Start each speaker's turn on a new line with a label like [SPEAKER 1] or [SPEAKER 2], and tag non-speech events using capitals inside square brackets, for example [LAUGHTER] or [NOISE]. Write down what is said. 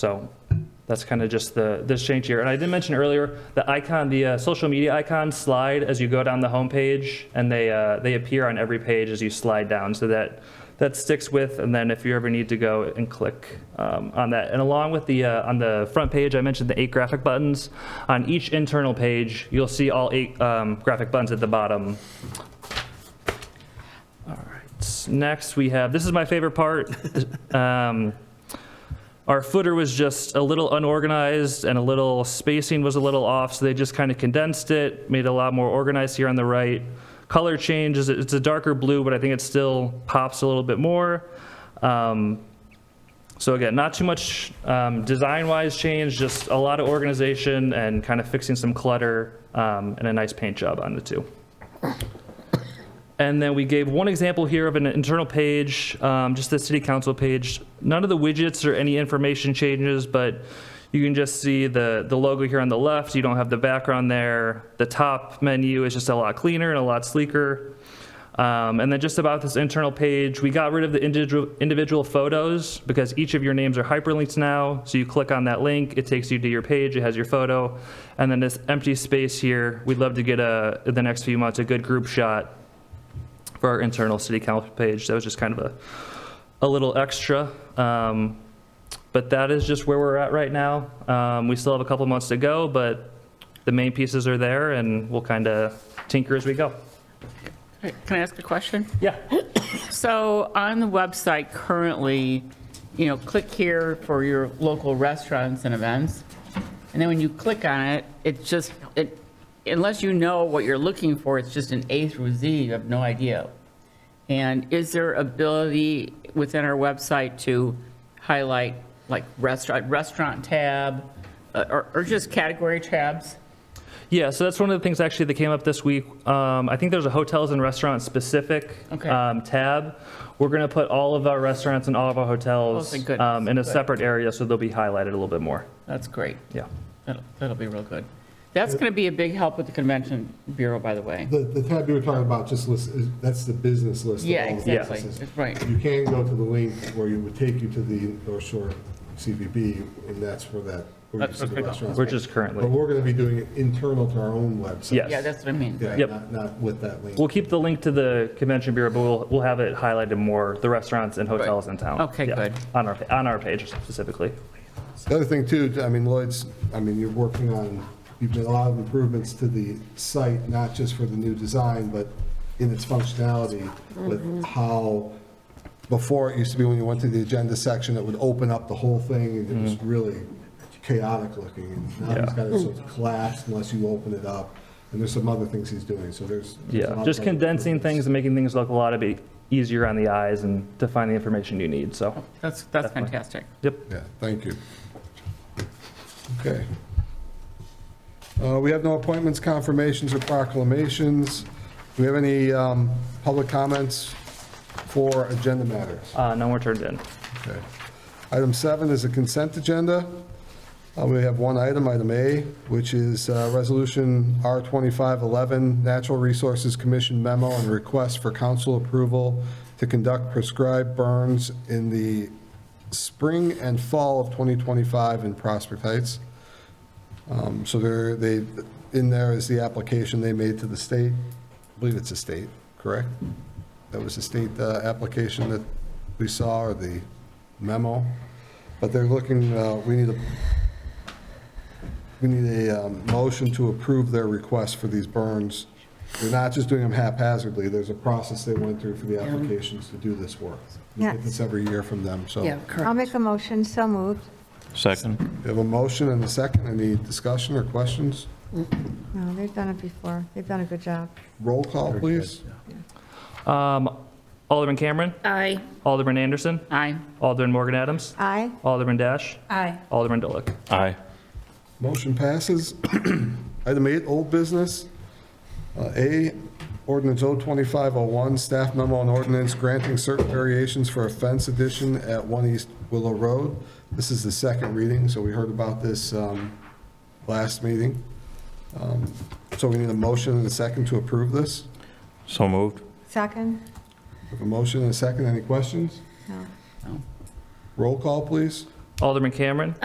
[SPEAKER 1] So that's kind of just the, this change here. And I did mention earlier, the icon, the uh, social media icon slide as you go down the homepage, and they, uh, they appear on every page as you slide down, so that, that sticks with, and then if you ever need to go and click um, on that. And along with the, uh, on the front page, I mentioned the eight graphic buttons. On each internal page, you'll see all eight um, graphic buttons at the bottom. All right, next we have, this is my favorite part. [LAUGHS] Um, our footer was just a little unorganized and a little spacing was a little off, so they just kind of condensed it, made it a lot more organized here on the right. Color change is it's a darker blue, but I think it still pops a little bit more. Um, so again, not too much um, design-wise change, just a lot of organization and kind of fixing some clutter um, and a nice paint job on the two. And then we gave one example here of an internal page, um, just the city council page. None of the widgets or any information changes, but you can just see the, the logo here on the left. You don't have the background there. The top menu is just a lot cleaner and a lot sleeker. Um, and then just about this internal page, we got rid of the individual, individual photos because each of your names are hyperlinked now. So you click on that link, it takes you to your page, it has your photo. And then this empty space here, we'd love to get a, in the next few months, a good group shot for our internal city council page. That was just kind of a, a little extra. Um, but that is just where we're at right now. Um, we still have a couple months to go, but the main pieces are there and we'll kind of tinker as we go.
[SPEAKER 2] Right, Can I ask a question?
[SPEAKER 1] Yeah.
[SPEAKER 2] So on the website currently, you know, click here for your local restaurants and events. And then when you click on it, it just, it, unless you know what you're looking for, it's just an A through Z, you have no idea. And is there ability within our website to highlight like restaurant, restaurant tab, uh, or, or just category tabs?
[SPEAKER 1] Yeah, so that's one of the things actually that came up this week. Um, I think there's a hotels and restaurants specific
[SPEAKER 2] Okay.
[SPEAKER 1] um, tab. We're going to put all of our restaurants and all of our
[SPEAKER 2] Oh,
[SPEAKER 1] hotels
[SPEAKER 2] thank goodness.
[SPEAKER 1] um, in a
[SPEAKER 2] Good.
[SPEAKER 1] separate area, so they'll be highlighted a little bit more.
[SPEAKER 2] That's great.
[SPEAKER 1] Yeah.
[SPEAKER 2] That'll, that'll be real good. That's going to be a big help with the convention bureau, by the way.
[SPEAKER 3] The, the tab you were talking about just lists, is- that's the business list. of
[SPEAKER 2] Yeah,
[SPEAKER 3] all the
[SPEAKER 2] exactly.
[SPEAKER 3] businesses.
[SPEAKER 2] Right.
[SPEAKER 3] You can go to the link where you would take you to the North Shore CVB, and that's where that, where you
[SPEAKER 2] That's
[SPEAKER 3] see the
[SPEAKER 2] okay.
[SPEAKER 3] restaurants.
[SPEAKER 1] We're just
[SPEAKER 3] But
[SPEAKER 1] currently.
[SPEAKER 3] we're going to be doing it internal to our own website.
[SPEAKER 1] Yes.
[SPEAKER 2] Yeah, that's what I mean.
[SPEAKER 3] Yeah,
[SPEAKER 1] Yep.
[SPEAKER 3] not, not with that link.
[SPEAKER 1] We'll keep the link to the convention bureau, but we'll, we'll have it highlighted more, the restaurants and hotels in town.
[SPEAKER 2] Okay,
[SPEAKER 1] Yeah,
[SPEAKER 2] good.
[SPEAKER 1] On our, on our page specifically.
[SPEAKER 3] The other thing too, I mean, Lloyd's, I mean, you're working on, you've made a lot of improvements to the site, not just for the new design, but in its functionality with how, before it used to be when you went to the agenda section, it would open up the whole thing and it was really chaotic looking. And now he's
[SPEAKER 1] Mm-hmm. Yeah.
[SPEAKER 3] got it sort of collapsed unless you open it up. And there's some other things he's doing, so there's. there's a lot
[SPEAKER 1] Yeah,
[SPEAKER 3] of
[SPEAKER 1] just
[SPEAKER 3] other
[SPEAKER 1] condensing things
[SPEAKER 3] improvements.
[SPEAKER 1] and making things look a lot of bit easier on the eyes and to find the information you need, so,
[SPEAKER 2] That's, that's fantastic.
[SPEAKER 1] yep.
[SPEAKER 3] Yeah, thank you. Okay. Uh, We have no appointments, confirmations, or proclamations. Do we have any um, public comments for agenda matters?
[SPEAKER 1] Uh, no more turned in.
[SPEAKER 3] Okay. Item seven is a consent agenda. Uh, We have one item, item A, which is uh, Resolution R2511, Natural Resources Commission memo and request for council approval to conduct prescribed burns in the spring and fall of 2025 in Prospect Heights. Um, So there, they, in there is the application they made to the state. I believe it's a state, correct? That was the state uh, application that we saw, or the memo. But they're looking, uh, we need a, we need a um, motion to approve their request for these burns. They're not just doing them haphazardly. There's a process they went through for the applications to do this work. We get
[SPEAKER 4] Yeah.
[SPEAKER 3] this every year from them, so.
[SPEAKER 4] Yeah, I'll make a motion, so moved.
[SPEAKER 5] Second.
[SPEAKER 3] We have a motion and a second. Any discussion or questions?
[SPEAKER 4] No, they've done it before. They've done a good job.
[SPEAKER 3] Roll call, please.
[SPEAKER 1] Um, Alderman Cameron,
[SPEAKER 2] Aye.
[SPEAKER 1] Alderman Anderson,
[SPEAKER 2] Aye.
[SPEAKER 1] Alderman Morgan Adams,
[SPEAKER 4] Aye.
[SPEAKER 1] Alderman Dash,
[SPEAKER 4] Aye.
[SPEAKER 1] Alderman Dolick.
[SPEAKER 5] Aye.
[SPEAKER 3] Motion passes. [CLEARS THROAT] Item eight, old business. Uh, A, ordinance O2501, staff memo and ordinance granting certain variations for a fence addition at 1 East Willow Road. This is the second reading, so we heard about this um, last meeting. Um, So we need a motion and a second to approve this.
[SPEAKER 5] So moved.
[SPEAKER 4] Second?
[SPEAKER 3] We have A motion and a second, any questions?
[SPEAKER 4] No.
[SPEAKER 3] Roll call, please.
[SPEAKER 1] Alderman Cameron,